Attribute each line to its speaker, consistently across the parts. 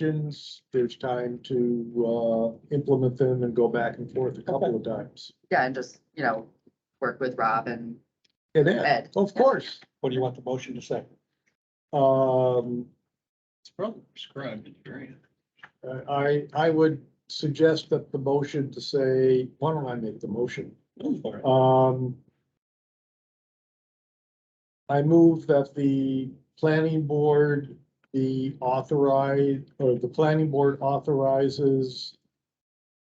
Speaker 1: suggestions, there's time to, uh, implement them and go back and forth a couple of times.
Speaker 2: Yeah, and just, you know, work with Rob and
Speaker 1: And then,
Speaker 2: Ed.
Speaker 1: of course,
Speaker 3: What do you want the motion to say?
Speaker 1: um,
Speaker 4: It's probably prescribed in the area.
Speaker 1: Uh, I, I would suggest that the motion to say, why don't I make the motion?
Speaker 4: Go for it.
Speaker 1: Um. I move that the planning board be authorized, or the planning board authorizes.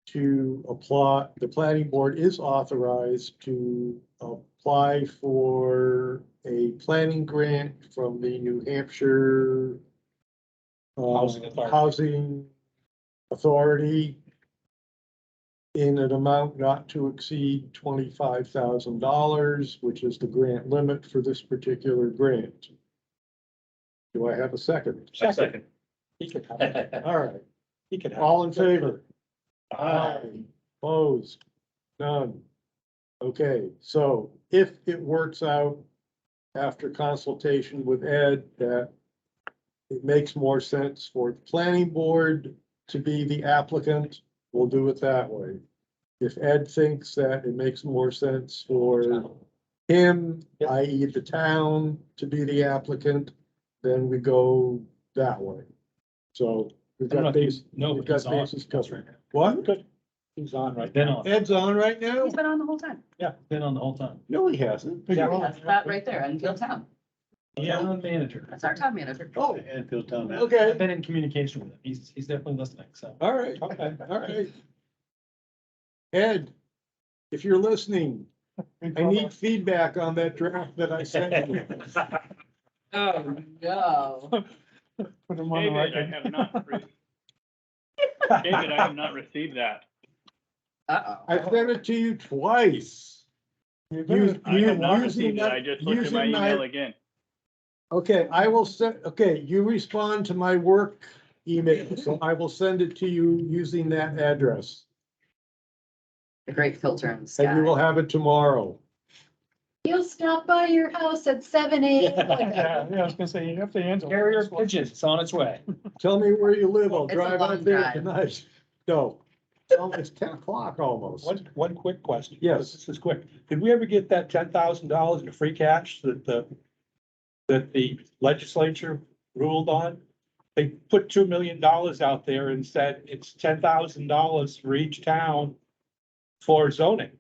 Speaker 1: To apply, the planning board is authorized to apply for a planning grant from the New Hampshire. uh,
Speaker 3: Housing Authority.
Speaker 1: Housing Authority in an amount not to exceed twenty-five thousand dollars, which is the grant limit for this particular grant. Do I have a second?
Speaker 4: I Second.
Speaker 3: He could have it.
Speaker 1: All right,
Speaker 3: He could have it.
Speaker 1: all in favor? Uh,
Speaker 4: Aye.
Speaker 1: Opposed? None. Okay, so if it works out after consultation with Ed that it makes more sense for the planning board to be the applicant, we'll do it that way. If Ed thinks that it makes more sense for him,
Speaker 3: Yep.
Speaker 1: i.e. the town, to be the applicant, then we go that way. So we've
Speaker 4: I don't know
Speaker 1: got
Speaker 4: if you
Speaker 1: these,
Speaker 4: know,
Speaker 1: we've
Speaker 4: but he's
Speaker 1: got
Speaker 4: on.
Speaker 1: bases covered.
Speaker 4: Right now.
Speaker 1: What?
Speaker 3: He's on right
Speaker 4: Been
Speaker 3: now.
Speaker 4: on,
Speaker 1: Ed's on right now?
Speaker 2: He's been on the whole time.
Speaker 4: been on the whole time.
Speaker 1: No, he hasn't.
Speaker 3: Yeah.
Speaker 2: That's that right there, Enfield Town.
Speaker 4: Town manager.
Speaker 2: That's our town manager.
Speaker 1: Oh,
Speaker 4: Enfield Town manager.
Speaker 1: okay.
Speaker 4: I've been in communication with him. He's, he's definitely listening, so.
Speaker 1: All right,
Speaker 3: Okay.
Speaker 1: all right. Ed, if you're listening, I need feedback on that draft that I sent you.
Speaker 2: Oh, no.
Speaker 3: Put him on the
Speaker 5: David, I
Speaker 3: record.
Speaker 5: have not, re- David, I have not received that.
Speaker 1: I
Speaker 2: Uh-oh.
Speaker 1: sent it to you twice.
Speaker 3: You
Speaker 1: You-
Speaker 3: better-
Speaker 5: I have not
Speaker 1: using
Speaker 5: received it.
Speaker 1: that-
Speaker 5: I just looked at my
Speaker 1: using my-
Speaker 5: email again.
Speaker 1: Okay, I will send, okay, you respond to my work email, so I will send it to you using that address.
Speaker 2: A great filter in the
Speaker 1: And you
Speaker 2: sky.
Speaker 1: will have it tomorrow.
Speaker 6: He'll stop by your house at seven AM.
Speaker 3: Yeah, yeah, I was gonna say, you have to answer.
Speaker 4: Carrier pigeon, it's on its way.
Speaker 1: Tell me where you live, I'll
Speaker 2: It's a
Speaker 1: drive
Speaker 2: long
Speaker 1: out there
Speaker 2: drive.
Speaker 1: tonight. No, Oh, it's ten o'clock almost.
Speaker 3: One, one quick question.
Speaker 1: Yes.
Speaker 3: This is quick. Did we ever get that ten thousand dollars in free cash that the, that the legislature ruled on? They put two million dollars out there and said it's ten thousand dollars for each town for zoning.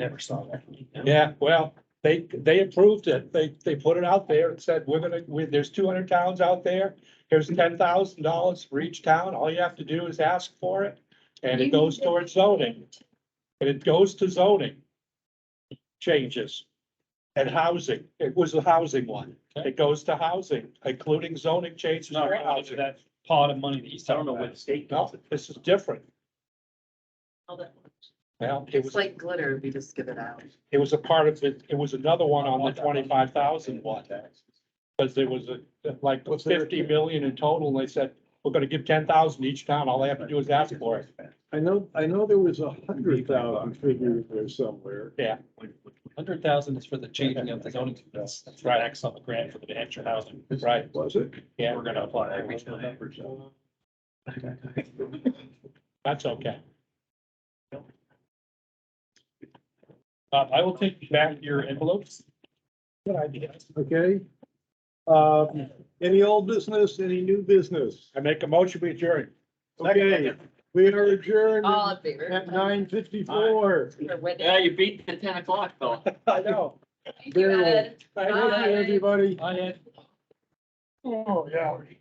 Speaker 4: Never saw that.
Speaker 3: Yeah, well, they, they approved it. They, they put it out there and said, we're gonna, we, there's two hundred towns out there. Here's ten thousand dollars for each town. All you have to do is ask for it and it goes towards zoning. And it goes to zoning changes and housing. It was the housing one. It goes to housing, including zoning
Speaker 4: It's
Speaker 3: changes
Speaker 4: not
Speaker 3: for
Speaker 4: related to
Speaker 3: housing.
Speaker 4: that pot of money that he's
Speaker 3: I don't
Speaker 4: talking
Speaker 3: know where the
Speaker 4: about.
Speaker 3: state does it. This is different. Well, it
Speaker 2: It's
Speaker 3: was,
Speaker 2: like glitter, we just give it out.
Speaker 3: it was a part of it. It was another one on the twenty-five thousand one.
Speaker 4: tax.
Speaker 3: Because there was a, like
Speaker 1: What's there?
Speaker 3: fifty million in total, and they said, we're gonna give ten thousand each town, all they have to do is ask for it.
Speaker 1: I know, I know there was a hundred thousand figure in there somewhere.
Speaker 4: Hundred thousand is for the changing of the zoning. That's that's right, X on the grant for the New Hampshire housing.
Speaker 3: Right,
Speaker 1: Was it?
Speaker 3: yeah,
Speaker 4: We're gonna apply every time.
Speaker 3: that's okay. Bob, I will take back your envelopes. Good idea.
Speaker 1: Okay. Um, any old business, any new business?
Speaker 3: I make a motion, we adjourn.
Speaker 1: Okay, we are adjourned
Speaker 2: All in
Speaker 1: at
Speaker 2: favor?
Speaker 1: nine fifty-four.
Speaker 2: You're winning.
Speaker 7: Yeah, you beat the ten o'clock though.
Speaker 3: I know.
Speaker 2: Thank you, Ed.
Speaker 1: Everybody.
Speaker 4: I had
Speaker 3: Oh, yeah.